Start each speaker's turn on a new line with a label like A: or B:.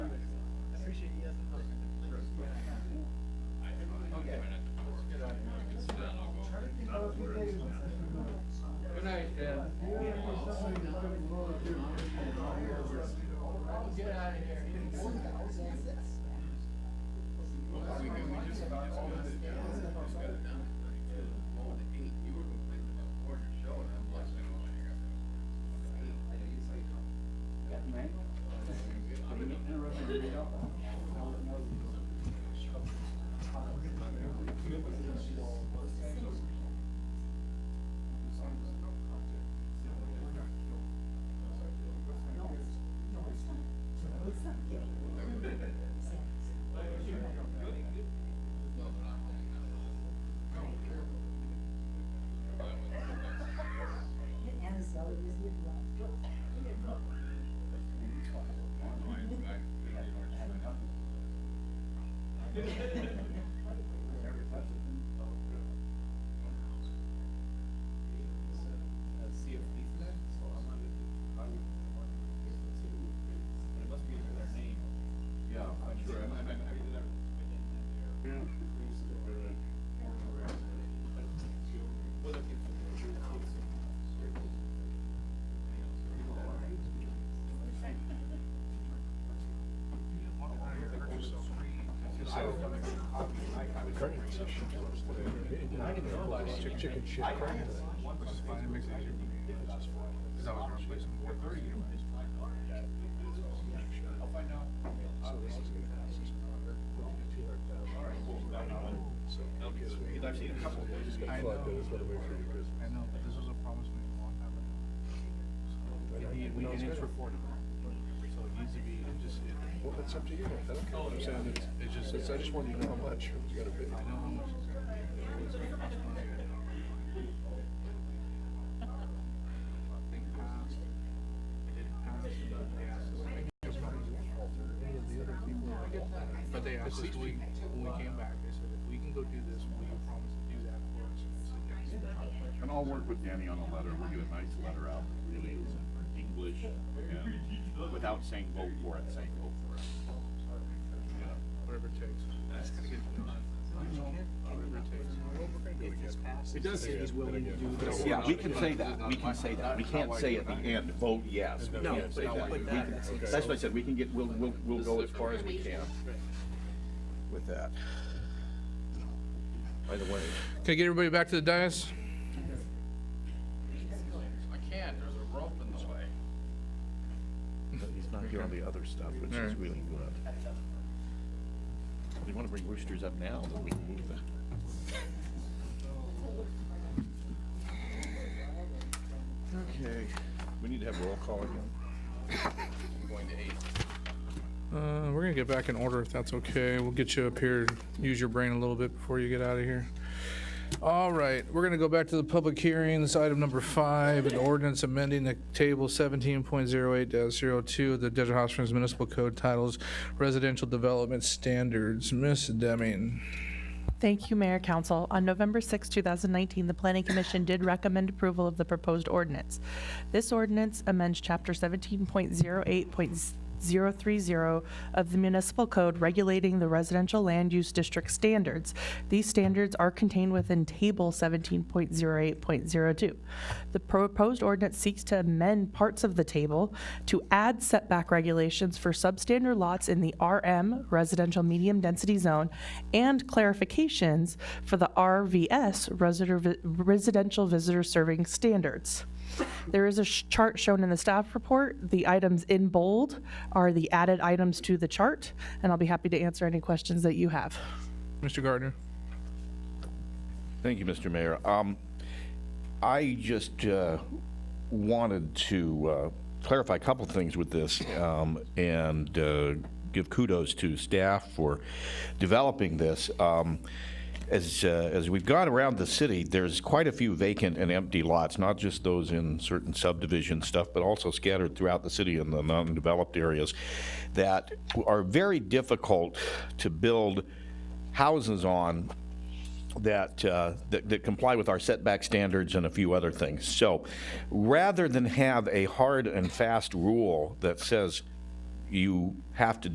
A: But it must be their name.
B: Yeah,
A: When
B: I'm
A: you
B: sure.
A: say-
B: I- I- I-
A: maybe they're within their-
B: Yeah.
A: but we're looking for the kids who- anything else.
C: Chick- Chicken shit. crap.
D: I
C: Fuck, that is
D: know,
C: what I wait for you, Chris.
D: I know, but this was a promise made a long time ago.
C: I
D: And he-
C: didn't
D: we-
C: know
D: and
C: it's
D: it's
C: good.
D: recorded, so it needs to be, it just, it.
C: Well, that's up to you. I don't care. what Oh, I'm saying it's, it's just, it's, I just want you to know how much you gotta pay.
D: I know how much it's gonna be. It was gonna cost money. Think past, past, past. But they asked us, when we, when we came back, they said, if we can go do this, will you promise to do that for us? And I said, "Yes."
B: And I'll work with Danny on a letter, we'll get a nice letter out that really is English, and without saying vote for it, saying vote for it. Yeah.
D: Whatever it takes. That's gonna get it done. Whatever it takes.
C: It does say he's willing to do this.
B: Yeah, we can say that, we can say that, we can't say at the end, vote yes. We
C: No,
B: can't
C: but
B: say
C: if you
B: that.
C: put
B: We
C: that-
B: can-
C: okay.
B: That's what I said, we can get, we'll, we'll, we'll go as far as we can with that. By the way,
D: Can I get everybody back to the dais?
A: I can't, there's a rope in the way.
B: he's not here on the other stuff, which is
D: Alright.
B: really good. If you wanna bring roosters up now, then we can move that. Okay, we need to have roll call again.
A: Going to eight.
D: Uh, we're gonna get back in order if that's okay. We'll get you up here, use your brain a little bit before you get out of here. All right, we're gonna go back to the public hearings, item number five, an ordinance amending the table seventeen point zero eight 2 of the Desert Hot Springs Municipal Code titles Residential Development Standards. Miss Deming.
E: Thank you, Mayor Council. On November 6, 2019, the Planning Commission did recommend approval of the proposed ordinance. This ordinance amends Chapter 17.08.030 of the Municipal Code regulating the residential land use district standards. These standards are contained within Table 17.08.02. The proposed ordinance seeks to amend parts of the table to add setback regulations for substandard lots in the RM, Residential Medium Density Zone, and clarifications for the RVS, Resider- Residential Visitor Serving Standards. There is a sh- chart shown in the staff report. The items in bold are the added items to the chart, and I'll be happy to answer any questions that you have.
D: Mr. Gardner.
B: Thank you, Mr. Mayor. Um, I just uh, wanted to uh, clarify a couple things with this um, and uh, give kudos to staff for developing this. Um, As, uh, as we've gone around the city, there's quite a few vacant and empty lots, not just those in certain subdivision stuff, but also scattered throughout the city in the non-developed areas that are very difficult to build houses on that, uh, that that comply with our setback standards and a few other things. So, rather than have a hard and fast rule that says you have to